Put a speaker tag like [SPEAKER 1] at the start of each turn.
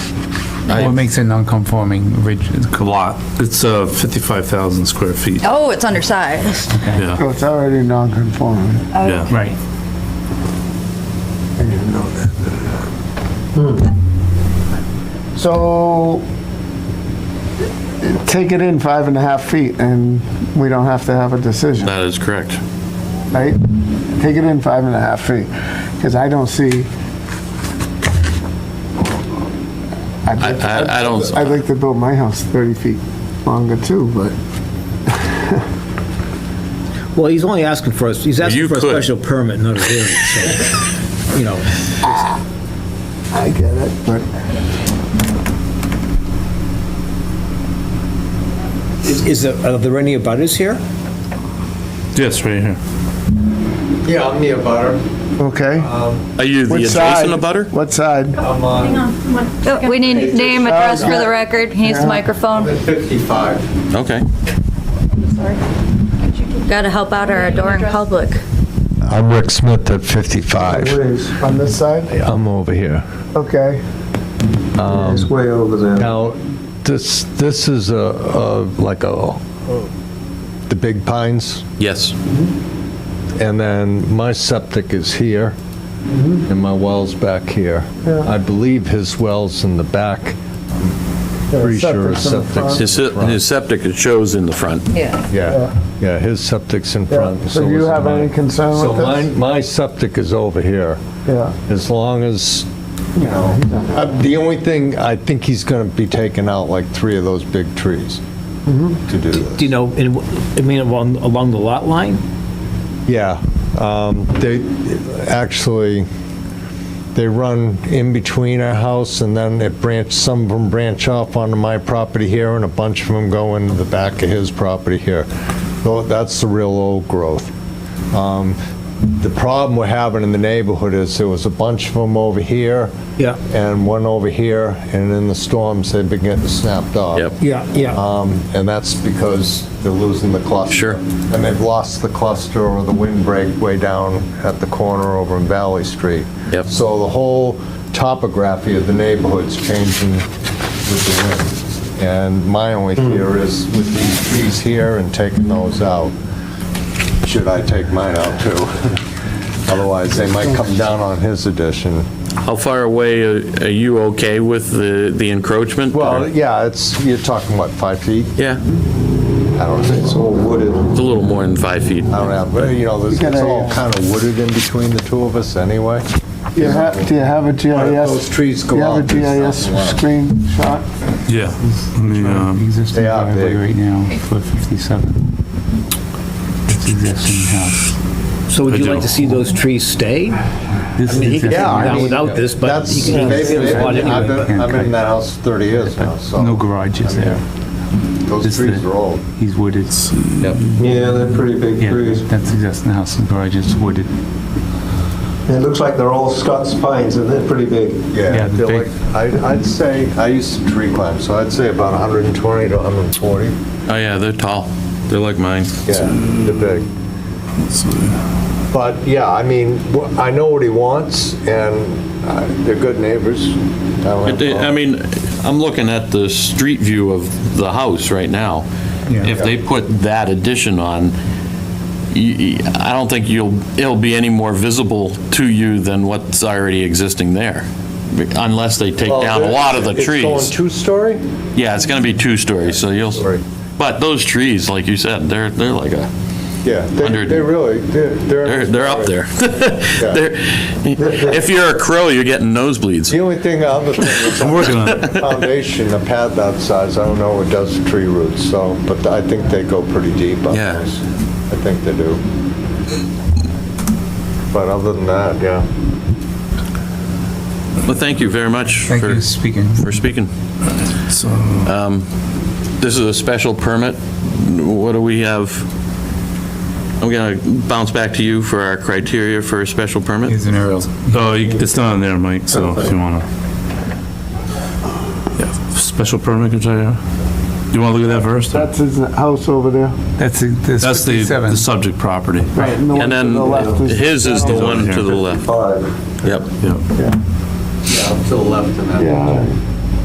[SPEAKER 1] What makes it non-conforming ridge?
[SPEAKER 2] A lot. It's uh, 55,000 square feet,
[SPEAKER 3] Oh, it's undersized.
[SPEAKER 2] yeah,
[SPEAKER 4] So Oh, it's already non-conforming.
[SPEAKER 2] yeah.
[SPEAKER 1] Right.
[SPEAKER 4] Hmm. So take it in five and a half feet and we don't have to have a decision,
[SPEAKER 2] That is correct.
[SPEAKER 4] right? Take it in five and a half feet, because I don't see. I'd
[SPEAKER 2] I-
[SPEAKER 4] like-
[SPEAKER 2] I- I don't-
[SPEAKER 4] I'd like to build my house 30 feet longer too, but
[SPEAKER 5] Well, he's only asking for, a- he's
[SPEAKER 2] you
[SPEAKER 5] asking for a
[SPEAKER 2] could.
[SPEAKER 5] special permit, not a variance, so, you know.
[SPEAKER 4] I get it, but
[SPEAKER 5] Is- Is, there- are there any abutters here?
[SPEAKER 2] Yes, right here.
[SPEAKER 6] Yeah, I'm near butter.
[SPEAKER 4] Okay.
[SPEAKER 2] Are you the
[SPEAKER 4] What
[SPEAKER 2] adjacent
[SPEAKER 4] side?
[SPEAKER 2] abutter?
[SPEAKER 4] What side?
[SPEAKER 6] I'm on
[SPEAKER 3] Oh, We need name, address for the record. He needs the microphone.
[SPEAKER 6] 55.
[SPEAKER 2] Okay.
[SPEAKER 3] Got to help out our adoring public.
[SPEAKER 7] I'm Rick Smith at 55.
[SPEAKER 4] On this side?
[SPEAKER 7] I'm over here.
[SPEAKER 4] Okay.
[SPEAKER 6] It's way over there.
[SPEAKER 7] Now, this, this is a, a- like a, the big pines,
[SPEAKER 2] Yes.
[SPEAKER 7] and then my septic is here, and my well's back here. I believe his well's in the back. Pretty sure his
[SPEAKER 4] septic's in the
[SPEAKER 7] septic's
[SPEAKER 4] front.
[SPEAKER 7] in
[SPEAKER 2] His
[SPEAKER 7] the
[SPEAKER 2] his
[SPEAKER 7] front.
[SPEAKER 2] septic, it shows in the front.
[SPEAKER 3] Yeah.
[SPEAKER 7] Yeah, yeah, his septic's in front.
[SPEAKER 4] So do you
[SPEAKER 7] is
[SPEAKER 4] have
[SPEAKER 7] mine.
[SPEAKER 4] any concern
[SPEAKER 7] So
[SPEAKER 4] with this?
[SPEAKER 7] mine- My septic is over here.
[SPEAKER 4] Yeah.
[SPEAKER 7] As long as, you know, uh, the only thing, I think he's going to be taking out like three of those big trees
[SPEAKER 4] Mm-hmm.
[SPEAKER 7] to do
[SPEAKER 5] Do
[SPEAKER 7] this.
[SPEAKER 5] you know, in- I mean, along, along the lot line?
[SPEAKER 7] Yeah, um, they, actually, they run in between our house and then it branch, some of them branch off onto my property here and a bunch of them go into the back of his property here. Tho- That's the real old growth. Um, The problem we're having in the neighborhood is there was a bunch of them over here.
[SPEAKER 5] Yeah.
[SPEAKER 7] And one over here, and in the storms, they've been getting snapped off.
[SPEAKER 2] Yep.
[SPEAKER 5] Yeah, yeah.
[SPEAKER 7] Um, And that's because they're losing the cluster.
[SPEAKER 2] Sure.
[SPEAKER 7] And they've lost the cluster or the windbreak way down at the corner over in Valley Street.
[SPEAKER 2] Yep.
[SPEAKER 7] So the whole topography of the neighborhood's changing with the wind. And my only
[SPEAKER 2] Hmm.
[SPEAKER 7] fear is with these trees here and taking those out, should I take mine out too? Otherwise, they might come down on his addition.
[SPEAKER 2] How far away are are you okay with the the encroachment?
[SPEAKER 7] Well, yeah, it's, you're talking, what, five feet?
[SPEAKER 2] Yeah,
[SPEAKER 7] I don't know, it's all wooded.
[SPEAKER 2] it's a little more than five feet.
[SPEAKER 7] I don't have, but you know, there's-
[SPEAKER 4] You
[SPEAKER 7] it's
[SPEAKER 4] gotta,
[SPEAKER 7] all
[SPEAKER 4] uh,
[SPEAKER 7] kind of wooded in between the two of us anyway.
[SPEAKER 4] Do you have, do you have a GIS?
[SPEAKER 7] those trees go
[SPEAKER 4] Do you have a
[SPEAKER 7] out, there's
[SPEAKER 4] GIS
[SPEAKER 7] nothing left.
[SPEAKER 4] screenshot?
[SPEAKER 2] Yeah.
[SPEAKER 1] Existing
[SPEAKER 8] um,
[SPEAKER 7] They are
[SPEAKER 1] driveway right
[SPEAKER 7] big.
[SPEAKER 1] now for 57. This existing house.
[SPEAKER 5] So would you
[SPEAKER 2] I
[SPEAKER 5] like to
[SPEAKER 2] do.
[SPEAKER 5] see those trees stay?
[SPEAKER 1] This
[SPEAKER 5] I mean, he
[SPEAKER 1] is existing,
[SPEAKER 5] could- Yeah, I
[SPEAKER 1] house,
[SPEAKER 5] mean, without this, but
[SPEAKER 7] That's-
[SPEAKER 5] you can-
[SPEAKER 7] maybe-
[SPEAKER 5] it's a lot
[SPEAKER 7] maybe- I've
[SPEAKER 5] anyway.
[SPEAKER 7] been I've been in that house 30 years now, so.
[SPEAKER 1] no garages there.
[SPEAKER 7] Those
[SPEAKER 1] Just
[SPEAKER 7] trees
[SPEAKER 1] the-
[SPEAKER 7] are old.
[SPEAKER 1] He's wooded.
[SPEAKER 6] Yeah, they're pretty big
[SPEAKER 1] Yeah,
[SPEAKER 6] trees.
[SPEAKER 1] that's existing house, the garage is wooded.
[SPEAKER 6] It looks like they're all Scots pines, and they're pretty big.
[SPEAKER 7] Yeah,
[SPEAKER 1] Yeah,
[SPEAKER 7] I
[SPEAKER 1] the
[SPEAKER 7] feel
[SPEAKER 1] big-
[SPEAKER 7] like, I'd I'd say, I used to tree climb, so I'd say about 120 to 140.
[SPEAKER 2] Oh, yeah, they're tall. They're like mine.
[SPEAKER 7] Yeah, they're big. But, yeah, I mean, wh- I know what he wants, and uh, they're good neighbors. I don't have a
[SPEAKER 2] It- it- I
[SPEAKER 7] problem.
[SPEAKER 2] mean, I'm looking at the street view of the house right now. If they put that addition on, y- y- I don't think you'll, it'll be any more visible to you than what's already existing there, unless they take
[SPEAKER 7] Well,
[SPEAKER 2] down a
[SPEAKER 7] they're-
[SPEAKER 2] lot of the
[SPEAKER 7] It's
[SPEAKER 2] trees.
[SPEAKER 7] going two-story?
[SPEAKER 2] Yeah, it's going to be two stories, so you'll,
[SPEAKER 7] Sorry.
[SPEAKER 2] but those trees, like you said, they're, they're like a,
[SPEAKER 7] Yeah, they
[SPEAKER 2] Hundred-
[SPEAKER 7] they really, they're...
[SPEAKER 2] they're, they're up there. They're, if you're a crow, you're getting nosebleeds.
[SPEAKER 7] The only thing, other thing is... I'm working on it. Foundation, a pad that size, I don't know what does to tree roots, so, but I think they go pretty deep on
[SPEAKER 2] Yeah.
[SPEAKER 7] those. I think they do. But other than that, yeah.
[SPEAKER 2] Well, thank you very much
[SPEAKER 1] Thank
[SPEAKER 2] for,
[SPEAKER 1] you, speaking.
[SPEAKER 2] for speaking. Um, This is a special permit. What do we have? I'm going to bounce back to you for our criteria for a special permit.
[SPEAKER 1] Here's an aerial.
[SPEAKER 8] Oh, you- it's not on there, Mike, so if you wanna. Yeah, Special permit criteria. You wanna look at that first?
[SPEAKER 4] That's his house over there.
[SPEAKER 1] That's, it- that's
[SPEAKER 8] That's the, the
[SPEAKER 1] 57.
[SPEAKER 8] subject property.
[SPEAKER 4] Right. the one
[SPEAKER 2] And
[SPEAKER 4] to
[SPEAKER 2] then
[SPEAKER 4] the left
[SPEAKER 2] his is the one to the left.
[SPEAKER 6] Five,
[SPEAKER 2] Yep.
[SPEAKER 8] Yeah.
[SPEAKER 6] to the left in that.
[SPEAKER 4] Yeah,